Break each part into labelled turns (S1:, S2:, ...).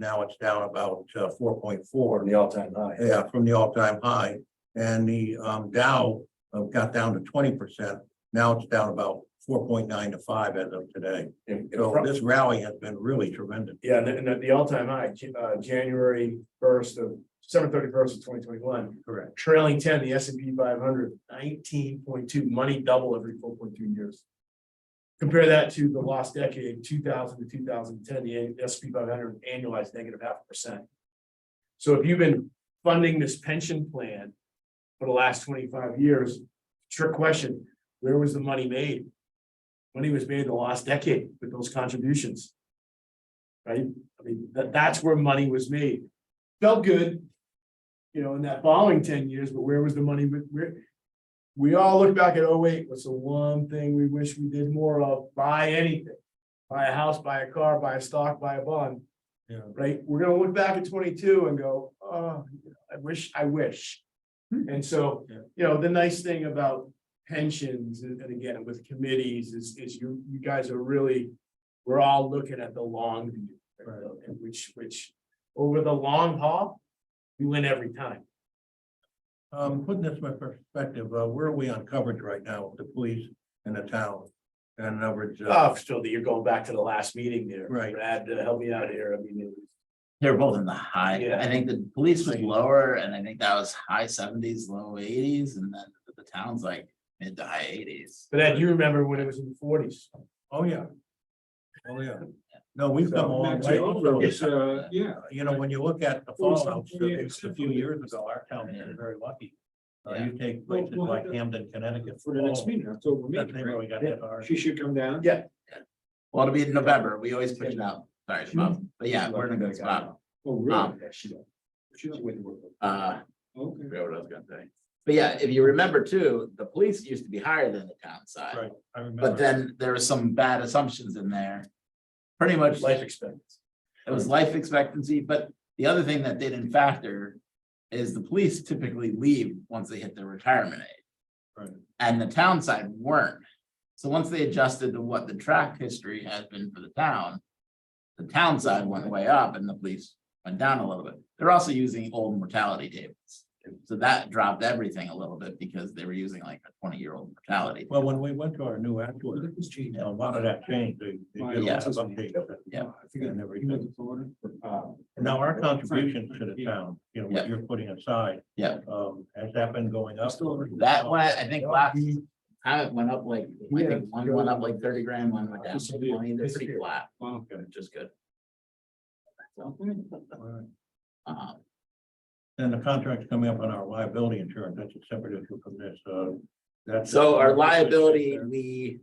S1: Now it's down about uh, four point four.
S2: from the all-time high.
S1: Yeah, from the all-time high. And the um Dow uh, got down to twenty percent. Now it's down about four point nine to five as of today.
S2: And- and
S1: So
S2: from-
S1: this rally has been really tremendous.
S2: Yeah, and the- and the, the all-time high, J- uh, January first of, December thirty-first of twenty twenty-one.
S1: Correct.
S2: Trailing ten, the S and P 500, 19.2 money double every four point two years. Compare that to the last decade, two thousand to two thousand and ten, the S and P five hundred annualized negative half a percent. So if you've been funding this pension plan for the last twenty-five years, trick question, where was the money made? Money was made the last decade with those contributions right? I mean, that, that's where money was made. Felt good, you know, in that following ten years, but where was the money, with- where? We all look back at, oh wait, what's the one thing we wish we did more of? Buy anything. Buy a house, buy a car, buy a stock, buy a bond.
S1: Yeah.
S2: Right? We're gonna look back at twenty-two and go, oh, I wish, I wish. And so,
S1: Hmm. Yeah.
S2: you know, the nice thing about pensions and and again with committees is, is you, you guys are really, we're all looking at the long view.
S1: Right.
S2: And Which, which, over the long haul, we win every time.
S1: Um, putting this in perspective, uh, where are we on coverage right now with the police and the town? And coverage, uh,
S2: Oh, so that you're going back to the last meeting there.
S1: Right.
S2: Brad, uh, help me out here. I mean, it was-
S3: They're both in the high,
S2: Yeah.
S3: I think the police was lower and I think that was high seventies, low eighties, and then the town's like mid to high eighties.
S2: but Ed, you remember when it was in the forties?
S1: oh, yeah. Oh, yeah. No, we've come a long way.
S3: uh,
S4: yeah.
S1: You know, when you look at the fallout, it's a few years ago, our town was very lucky.
S3: Oh,
S1: Uh, you take places like Hamden, Connecticut.
S4: For the next meeting, October
S1: That
S4: meeting,
S1: they really got hit hard.
S4: she should come down.
S2: Yeah.
S3: Well, it'll be in November, we always push it out, sorry, Shabab, but yeah, we're in a good spot.
S4: Oh,
S3: Um,
S2: Ah,
S4: really? She's with the work.
S3: Uh,
S4: Okay.
S3: forgot what I was gonna say. But yeah, if you remember too, the police used to be higher than the town
S1: Right.
S3: side,
S1: I
S3: but
S1: remember.
S3: then there were some bad assumptions in there. Pretty much,
S2: Life
S3: it
S2: expectancy.
S3: was life expectancy, but the other thing that they didn't factor is the police typically leave once they hit their retirement age.
S1: Right.
S3: And the town side weren't. So once they adjusted to what the track history has been for the town. The town side went way up and the police went down a little bit. They're also using old mortality tables. So that dropped everything a little bit because they were using like a twenty-year-old mortality.
S1: Well, when we went to our new actuary,
S4: Look, this
S1: you
S4: change.
S1: know, a lot of that changed. They- they did a lot of updates.
S3: Yeah.
S4: I forget.
S1: And everything.
S4: You went to Florida? Uh,
S1: Now, our contributions to the town, you know,
S3: Yeah.
S1: what you're putting aside.
S3: Yeah.
S1: Um, has that been going up?
S3: That one, I think last time it went up like, I think one went up like thirty grand, one went down to twenty, they're pretty flat,
S4: Wow.
S3: which is good.
S1: Alright.
S3: Uh,
S1: And the contract's coming up on our liability insurance, that's a separate issue from this, uh. that's-
S3: So our liability, we,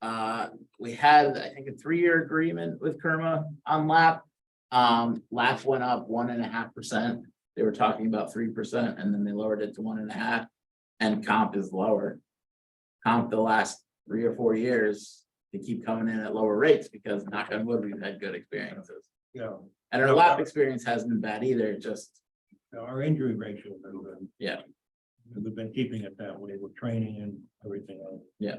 S3: uh, we had, I think, a three-year agreement with Kerma on LAP. Um, LAP went up one and a half percent. They were talking about three percent and then they lowered it to one and a half. And comp is lower. Comp the last three or four years, they keep coming in at lower rates because knock on wood, we've had good experiences.
S1: Yeah,
S3: And our LAP experience hasn't been bad either, it just,
S1: our injury ratio. has been-
S3: Yeah.
S1: We've been keeping it that way, with training and everything else.
S3: Yeah.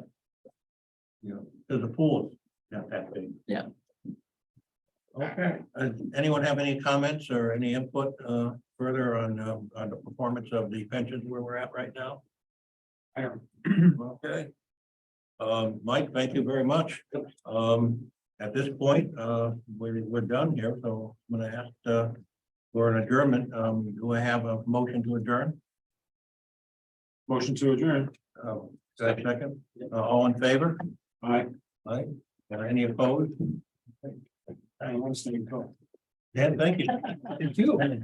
S1: You know, because the pool is not that big.
S3: Yeah.
S1: Okay, Uh, anyone have any comments or any input, uh, further on, um, on the performance of the pensions where we're at right now?
S4: I don't.
S1: Okay. Um, Mike, thank you very much. Um, at this point, uh, we're, we're done here, so I'm gonna ask, uh, for an adjournment. Um, do I have a motion to adjourn?
S4: Motion to adjourn.
S1: Um, is that second? Uh, all in favor?
S4: Aye.
S1: Aye. Are any opposed?
S4: I want to stay in call.
S1: Dan, thank you.